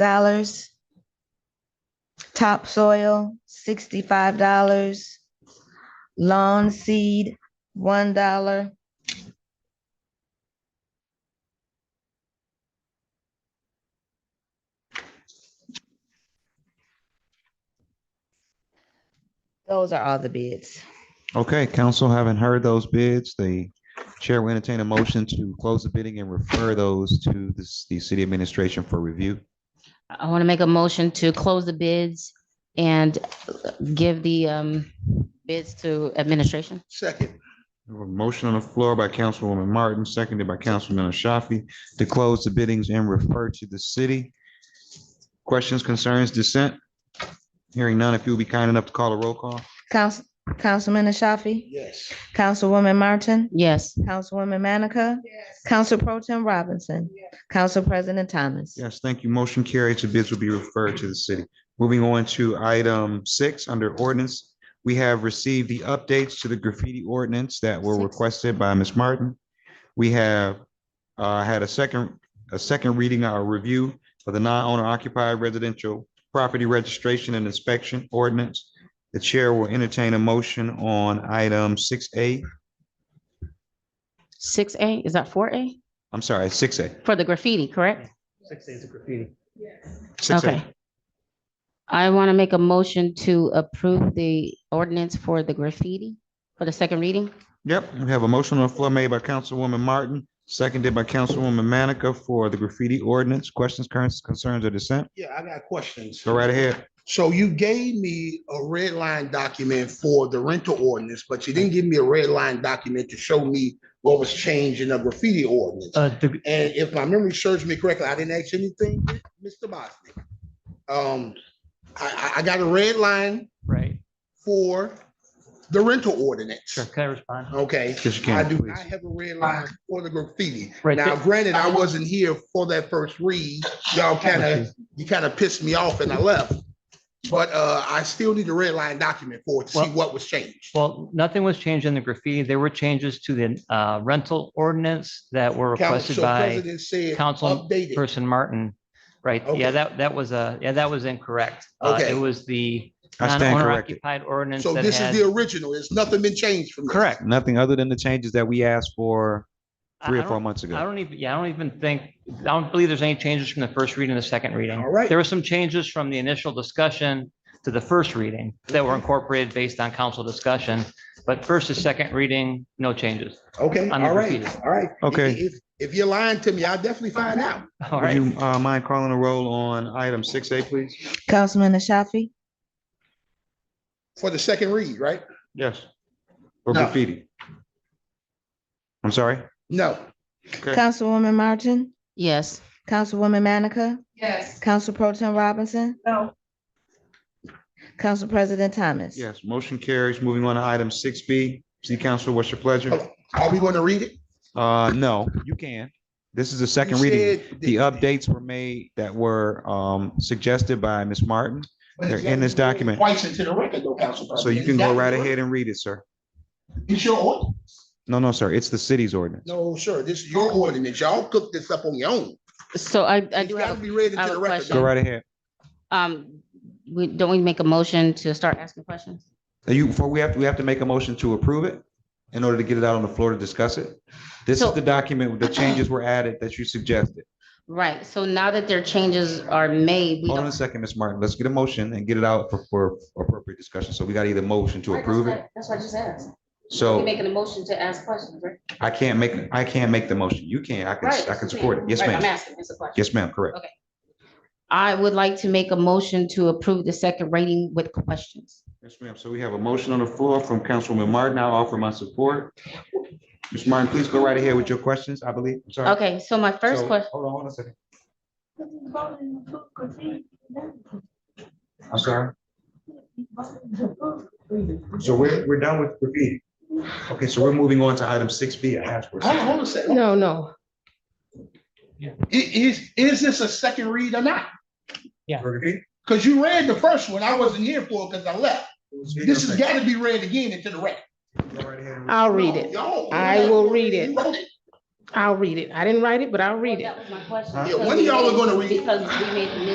dollars. Topsoil, sixty-five dollars. Lawn seed, one dollar. Those are all the bids. Okay, council, having heard those bids, the chair will entertain a motion to close the bidding and refer those to the, the city administration for review. I want to make a motion to close the bids and give the um, bids to administration. Second. We have A motion on the floor by Councilwoman Martin, seconded by Councilman Ashafi, to close the biddings and refer to the city. Questions, concerns, dissent? Hearing none, if you would be kind enough to call a roll call. Council, Councilman Ashafi, Yes. Councilwoman Martin, Yes, Councilwoman Manica, Council Pro Tem Robinson, Council President Thomas. Yes, thank you. Motion carries. The bids will be referred to the city. Moving on to item six, under ordinance, we have received the updates to the graffiti ordinance that were Six. requested by Ms. Martin. We have uh, had a second, a second reading, our review of the non-owner occupied residential property registration and inspection ordinance. The chair will entertain a motion on item six A, six A, is that four A? I'm sorry, six A, For the graffiti, correct? Six days of graffiti. six Okay. A. I want to make a motion to approve the ordinance for the graffiti for the second reading. Yep, we have a motion on the floor made by Councilwoman Martin, seconded by Councilwoman Manica for the graffiti ordinance. Questions, currents, concerns, or dissent? Yeah, I got questions. Go right ahead. So you gave me a red line document for the rental ordinance, but you didn't give me a red line document to show me what was changed in the graffiti ordinance. Uh, the, And if my memory serves me correctly, I didn't ask anything, Mr. Bosnick. Um, I, I, I got a red line right, for the rental ordinance. sure, can I respond? Okay. Yes, you I can, do please. not have a red line for the graffiti. Right Now, there. granted, I wasn't here for that first read. Y'all kind of, you kind of pissed me off and I left. But uh, I still need a red line document for it to see Well- what was changed. Well, nothing was changed in the graffiti. There were changes to the uh, rental ordinance that were requested Council by President said Council updated. Person Martin. Right, Okay. yeah, that, that was a, yeah, that was incorrect. Uh, Okay. It was the I stand non-owner corrected. occupied ordinance So that this is the had. original. It's nothing been changed from. this. Correct. Nothing other than the changes that we asked for I- three I or four don't- months I ago. don't even, yeah, I don't even think, I don't believe there's any changes from the first reading to the second reading. All right. There were some changes from the initial discussion to the first reading that were incorporated based on council discussion. But first to second reading, no changes. Okay, On the all right, graffiti. all right. Okay. If, if you're lying to me, I'll definitely find out. All Would right. you uh, mind calling a roll on item six A, please? Councilman Ashafi, For the second read, right? Yes. For No. graffiti? I'm sorry? No. Okay. Councilwoman Martin, Yes. Councilwoman Manica, Yes. Council Pro Tem Robinson, No. Council President Thomas. Yes, motion carries. Moving on to item six B. City Council, what's your pleasure? Are we going to read it? Uh, no, you can. This is the second You reading. said The that- updates were made that were um, suggested by Ms. Martin, But They're it's in this gotta be document. Twice into the record, though, Council so President. you can go It's right gotta be- ahead and read it, sir. It's your ordinance. No, no, sir, it's the city's ordinance. No, sir, this is your ordinance. Y'all cooked this up on your own. So I, I It's do gotta have, be read I into have the a record. question. Go though. right ahead. a- um, we, don't we make a motion to start asking questions? Are You, before we have, we have to make a motion to approve it in order to get it out on the floor to discuss it. This is So- the document, with the changes were added that you suggested. Right, so now that their changes are made, we Hold on a don't. second, Ms. Martin, let's get a motion and get it out for, for appropriate discussion. So we got either motion to approve it. That's what I just asked. We're So making a motion to ask questions, right? I can't make, I can't make the motion. You can, I can, Right, I can support it. Yes, Right, I'm ma'am. asking, it's a question. Yes, ma'am, correct. I would like to make a motion to approve the second reading with questions. Yes, ma'am. So we have a motion on the floor from Councilwoman Martin. I'll offer my support. Ms. Martin, please go right ahead with your questions, I believe. I'm sorry. Okay, so my first So- question, Hold on, hold on a second. I'm sorry. So we're, we're done with graffiti. Okay, so we're moving on to item six B, a hash. Hold on, hold on a second. no, no, I- Is, is this a second read or not? For graffiti? Because you read the first one. I wasn't here for it because I left. This has got to be read again into the record. Go right ahead. I'll read it. Y'all- I will read it. You wrote it. I'll read it. I didn't write it, but I'll reat it. That was my question. Huh? Yeah, when y'all are gonna read- Because we made the